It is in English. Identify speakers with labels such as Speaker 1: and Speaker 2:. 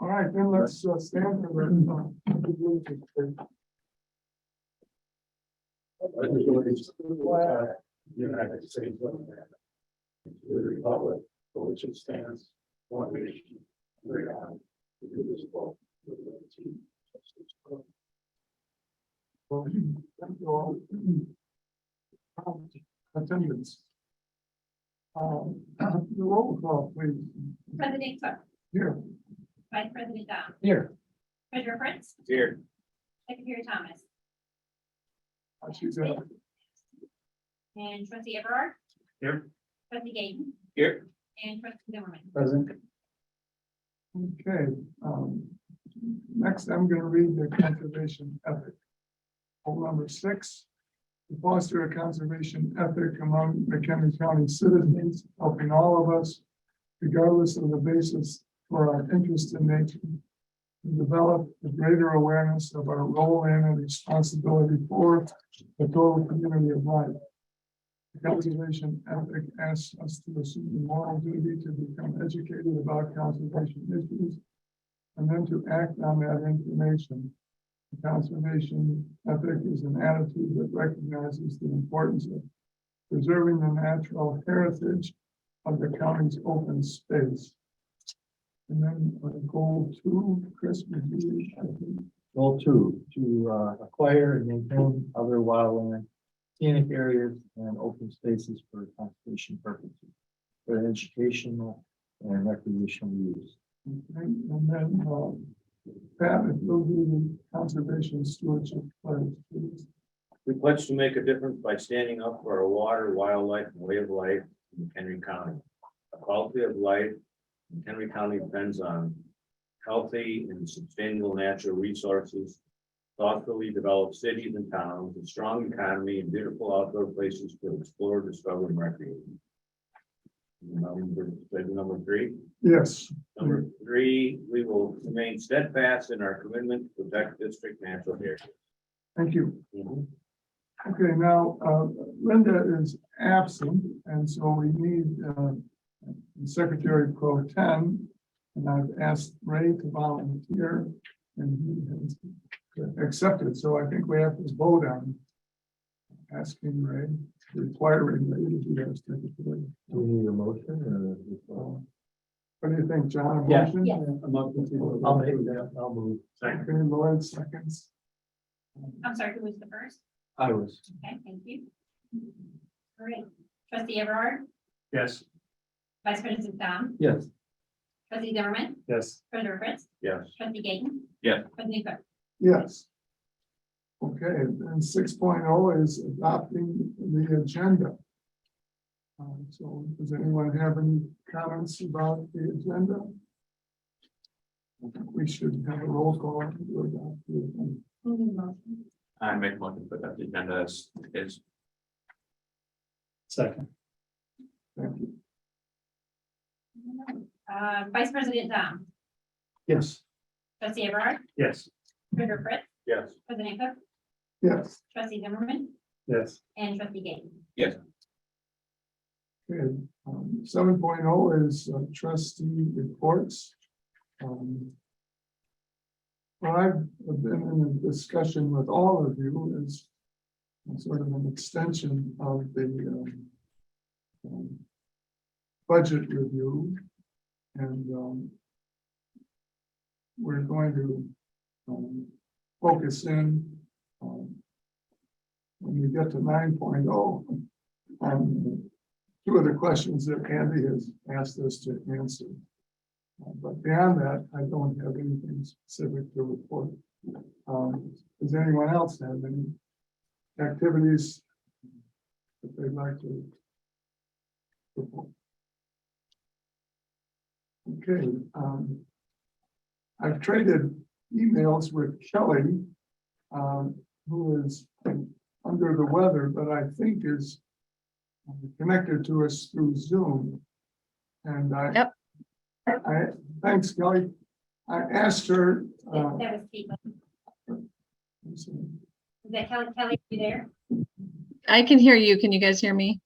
Speaker 1: All right, then let's uh, stand for the. uh, pledge of allegiance.
Speaker 2: United States of America. To the Republic, for which it stands, one nation, under God, indivisible, with liberty. and justice for all.
Speaker 1: Well, Thank you all. Um, Attendance. Um, The roll call, please.
Speaker 3: President Cook,
Speaker 1: Here.
Speaker 3: Vice President Dom,
Speaker 1: Here.
Speaker 3: Treasurer Prince,
Speaker 2: Here.
Speaker 3: Secretary Thomas,
Speaker 1: She's uh,
Speaker 3: and Trustee Everard.
Speaker 2: Here.
Speaker 3: Trustee Gayton
Speaker 2: Here.
Speaker 3: and Trustee Zimmerman.
Speaker 2: Present.
Speaker 1: Okay, um, next I'm gonna read the conservation ethic. Poll number six, to foster a conservation ethic among McHenry County citizens, helping all of us, regardless of the basis for our interest in nature, to develop a greater awareness of our role in and responsibility for the total community of life. The Conservation ethic asks us to assume the moral duty to become educated about conservation issues. And then to act on that information. The Conservation ethic is an attitude that recognizes the importance of preserving the natural heritage of the county's open space. And then on goal two, Chris, would you, I think,
Speaker 4: Goal two, to uh, acquire and maintain other wildland, scenic areas and open spaces for conservation purposes. For educational and recreational use.
Speaker 1: Okay, and then, um, Pat, if you'll do the conservation stewardship pledge, please.
Speaker 5: We pledge to make a difference by standing up for our water, wildlife, and way of life in Henry County. A quality of life in Henry County depends on healthy and sustainable natural resources, thoughtfully developed cities and towns, a strong economy, and beautiful outdoor places to explore, discover, and recreate. Number, number three.
Speaker 1: Yes,
Speaker 5: Number three, we will remain steadfast in our commitment to protect district natural heritage.
Speaker 1: thank you. Okay, now, uh, Linda is absent, and so we need, uh, Secretary Pro Tem. And I've asked Ray to volunteer, and he has accepted, so I think we have to vote on asking Ray, requiring Ray to be our secretary. Uh,
Speaker 4: Do we need a motion or?
Speaker 1: What do you think, John? A
Speaker 4: Yeah.
Speaker 1: motion?
Speaker 3: Yeah.
Speaker 4: I'll make that, I'll move.
Speaker 5: Second.
Speaker 1: Okay, Lloyd seconds.
Speaker 3: I'm sorry, who was the first?
Speaker 4: I was.
Speaker 3: Okay, thank you. All right, Trustee Everard,
Speaker 2: Yes.
Speaker 3: Vice President Dom,
Speaker 4: Yes.
Speaker 3: Trustee Zimmerman,
Speaker 2: Yes.
Speaker 3: Treasurer Prince,
Speaker 5: Yes.
Speaker 3: Trustee Gayton
Speaker 5: Yeah.
Speaker 3: President Cook,
Speaker 1: Yes. Okay, and six oh is adopting the agenda. Um, so does anyone have any comments about the agenda? I think We should have a roll call. to adopt the agenda.
Speaker 3: who made the motion?
Speaker 2: I make one, but that agenda is, is. Second.
Speaker 1: Thank you.
Speaker 3: Uh, Vice President Dom,
Speaker 4: Yes.
Speaker 3: Trustee Everard,
Speaker 2: Yes.
Speaker 3: Treasurer Prince,
Speaker 5: Yes.
Speaker 3: President Cook,
Speaker 1: Yes.
Speaker 3: Trustee Zimmerman,
Speaker 2: Yes.
Speaker 3: and Trustee Gayton.
Speaker 1: Good. um, Seven is uh, trustee reports. Um, Well, I've been in a discussion with all of you as sort of an extension of the um, um, budget review. And um, we're going to um, focus in um, when we get to nine oh, um, on two of the questions that Andy has asked us to answer. Uh, But beyond that, I don't have anything specific to report. Um, Does anyone else have any activities that they'd like to report? Okay, um, I've traded emails with Kelly, um, who is under the weather, but I think is connected to us through Zoom. And I.
Speaker 6: Yep.
Speaker 1: I, thanks, Kelly. I asked her, uh,
Speaker 3: That that was Caitlin.
Speaker 1: I'm sorry.
Speaker 3: Is that Kelly, Kelly, you there?
Speaker 6: I can hear you. Can you guys hear me?